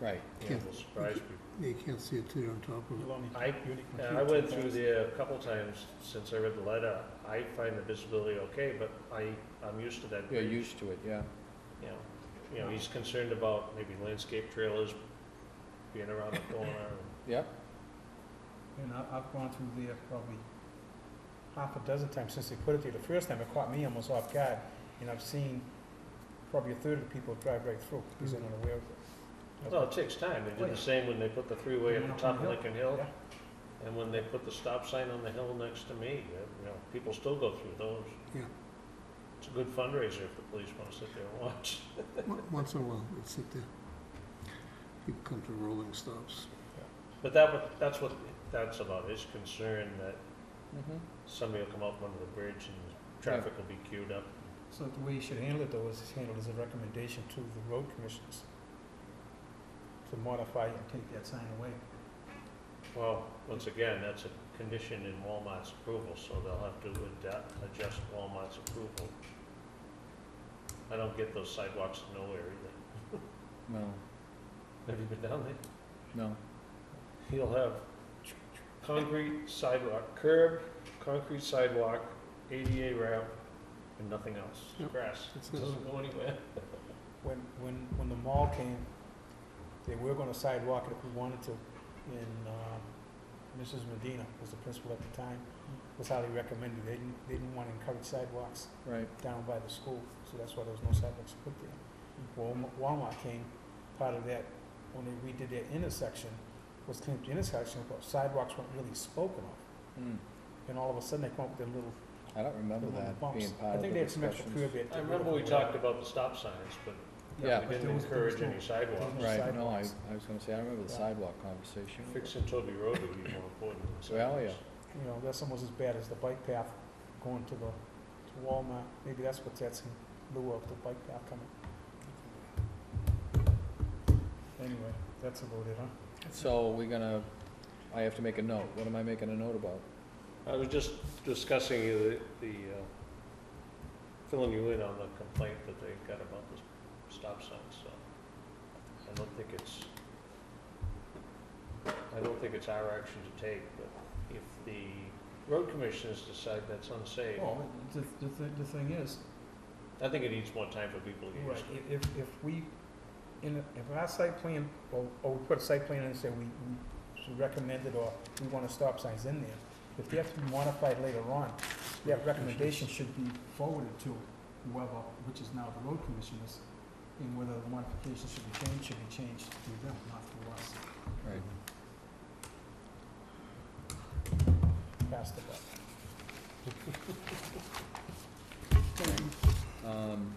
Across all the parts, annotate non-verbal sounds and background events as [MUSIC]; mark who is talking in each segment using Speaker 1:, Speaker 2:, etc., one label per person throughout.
Speaker 1: Right.
Speaker 2: Yeah.
Speaker 3: It'll surprise people.
Speaker 2: You can't see it till you're on top of it.
Speaker 3: I, and I went through there a couple times since I read the letter. I find the visibility okay, but I, I'm used to that.
Speaker 1: You're used to it, yeah.
Speaker 3: You know, you know, he's concerned about maybe landscape trailers being around the corner.
Speaker 1: Yep,
Speaker 4: And I, I've gone through there probably half a dozen times since they put it there. The first time it caught me almost off guard, and I've seen probably a third of the people drive right through because they're not aware of it.
Speaker 3: Well, oh, it takes time. They did the same when they put the freeway at the top of Lincoln Hill. And when they put the stop sign on the hill next to me, uh, you know, people still go through those.
Speaker 2: Yeah.
Speaker 3: It's a good fundraiser if the police want to sit there and watch.
Speaker 2: Mo- Once in a while, it's sit there. People come to rolling stops.
Speaker 3: But that, wa- that's what, that's about, his concern that
Speaker 1: mhm,
Speaker 3: somebody will come up under the bridge and traffic will be queued up.
Speaker 4: So the way you should handle it though is it's handled as a recommendation to the road commissioners to modify and take that sign away.
Speaker 3: Well, once again, that's a condition in Walmart's approval, so they'll have to adapt, adjust Walmart's approval. I don't get those sidewalks to nowhere either.
Speaker 1: no,
Speaker 3: Have you been down there?
Speaker 1: no,
Speaker 3: He'll have concrete sidewalk, curb, concrete sidewalk, ADA ramp, and nothing else,
Speaker 2: Yep.
Speaker 3: grass.
Speaker 2: That's it.
Speaker 3: Doesn't go anywhere.
Speaker 4: When, when, when the mall came, they were gonna sidewalk it if we wanted to, and, um, Mrs. Medina was the principal at the time, was highly recommended, they didn't, they didn't wanna encourage sidewalks
Speaker 1: right,
Speaker 4: down by the school, so that's why there was no sidewalks put there. Walmart- Walmart came, part of that, when they redid their intersection, was cleaned up the intersection, but sidewalks weren't really spoken of,
Speaker 1: mm,
Speaker 4: and all of a sudden they come up with their little,
Speaker 1: I don't remember
Speaker 4: their little
Speaker 1: that
Speaker 4: bumps.
Speaker 1: being part of
Speaker 4: I
Speaker 1: the
Speaker 4: think they had some extra
Speaker 1: discussions.
Speaker 4: curb at.
Speaker 3: I remember we talked about the stop signs, but
Speaker 1: Yeah.
Speaker 3: we
Speaker 4: but there
Speaker 3: didn't
Speaker 4: was- there was
Speaker 3: encourage any
Speaker 4: no-
Speaker 3: sidewalks.
Speaker 4: there was
Speaker 1: Right, no, I,
Speaker 4: sidewalks.
Speaker 1: I was gonna say, I remember the
Speaker 4: Yeah.
Speaker 1: sidewalk conversation.
Speaker 3: Fixing Toby Road would be more important than
Speaker 1: Well,
Speaker 3: sidewalks.
Speaker 4: You know, that's almost as bad as the bike path going to the, to Walmart, maybe that's what that's in lieu of, the bike path coming. Anyway, that's about it, huh?
Speaker 1: So we're gonna, I have to make a note, what am I making a note about?
Speaker 3: I was just discussing the, the, uh, filling you in on the complaint that they got about the s- stop sign, so. I don't think it's, I don't think it's our action to take, but if the road commissioners decide that's unsafe,
Speaker 4: Well, the, the, thi- the thing is,
Speaker 3: I think it needs more time for people to get
Speaker 4: Right,
Speaker 3: used to.
Speaker 4: if, if, if we, in, a- if our site plan, or, or we put a site plan in and say we, we should recommend it, or we want to stop signs in there, if they have to be modified later on, that recommendation should be forwarded to whoever, which is now the road commissioners, and whether the modification should be changed, should be changed through them, not through us,
Speaker 1: Right,
Speaker 4: pass the buck.
Speaker 1: um,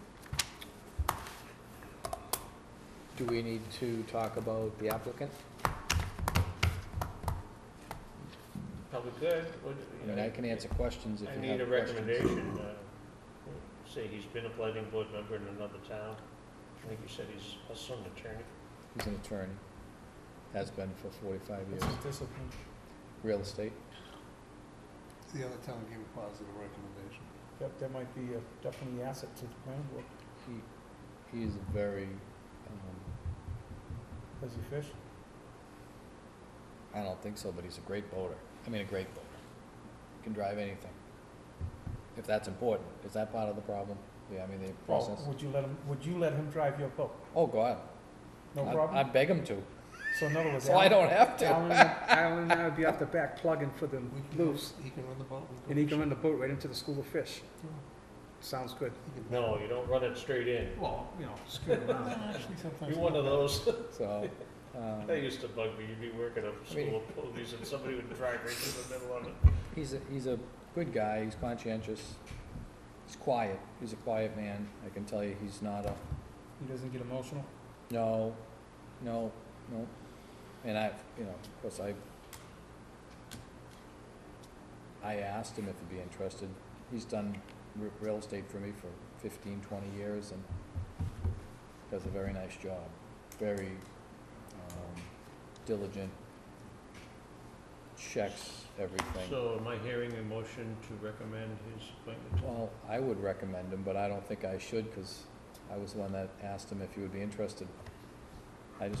Speaker 1: do we need to talk about the applicant?
Speaker 3: Probably good, would,
Speaker 1: I
Speaker 3: you know.
Speaker 1: mean, I can answer questions if
Speaker 3: I
Speaker 1: you have
Speaker 3: need a
Speaker 1: questions.
Speaker 3: recommendation, uh, say he's been a planning board member in another town, I think you said he's also an attorney.
Speaker 1: He's an attorney, has been for forty-five years,
Speaker 4: It's a discipline.
Speaker 1: real estate.
Speaker 2: The other town gave a positive recommendation.
Speaker 4: That, that might be a definitely asset to the planning board,
Speaker 1: He, he is a very, um,
Speaker 4: does he fish?
Speaker 1: I don't think so, but he's a great boater. I mean, a great boater. Can drive anything. If that's important, is that part of the problem? Yeah, I mean, the
Speaker 4: Well,
Speaker 1: process.
Speaker 4: would you let him, would you let him drive your boat?
Speaker 1: Oh, God.
Speaker 4: No
Speaker 1: I-
Speaker 4: problem?
Speaker 1: I beg him to,
Speaker 4: So in other words,
Speaker 1: so I
Speaker 4: Alan,
Speaker 1: don't have to.
Speaker 4: Alan, Alan and I would be off the back plugging for them
Speaker 2: We can-
Speaker 4: loose,
Speaker 2: He can run the boat.
Speaker 4: and he can run the boat right into the school of fish.
Speaker 2: Yeah.
Speaker 4: Sounds good.
Speaker 2: He can-
Speaker 3: No, you don't run it straight in.
Speaker 4: Well, you know, screw around.
Speaker 2: Actually, sometimes.
Speaker 3: You're one of those, [LAUGHS]
Speaker 4: [LAUGHS]
Speaker 1: So, um,
Speaker 3: that used to bug me, you'd be working up a
Speaker 1: I mean-
Speaker 3: school [LAUGHS] of ponies and somebody would drive right through the middle of it.
Speaker 1: he's a, he's a good guy. He's conscientious. He's quiet. He's a quiet man. I can tell you, he's not a,
Speaker 4: He doesn't get emotional?
Speaker 1: No, no, no. And I, you know, of course, I, I asked him if he'd be interested. He's done re- real estate for me for 15, 20 years and does a very nice job, very um, diligent, checks everything.
Speaker 3: So am I hearing a motion to recommend his appointment?
Speaker 1: Well, I would recommend him, but I don't think I should, because I was the one that asked him if he would be interested. I just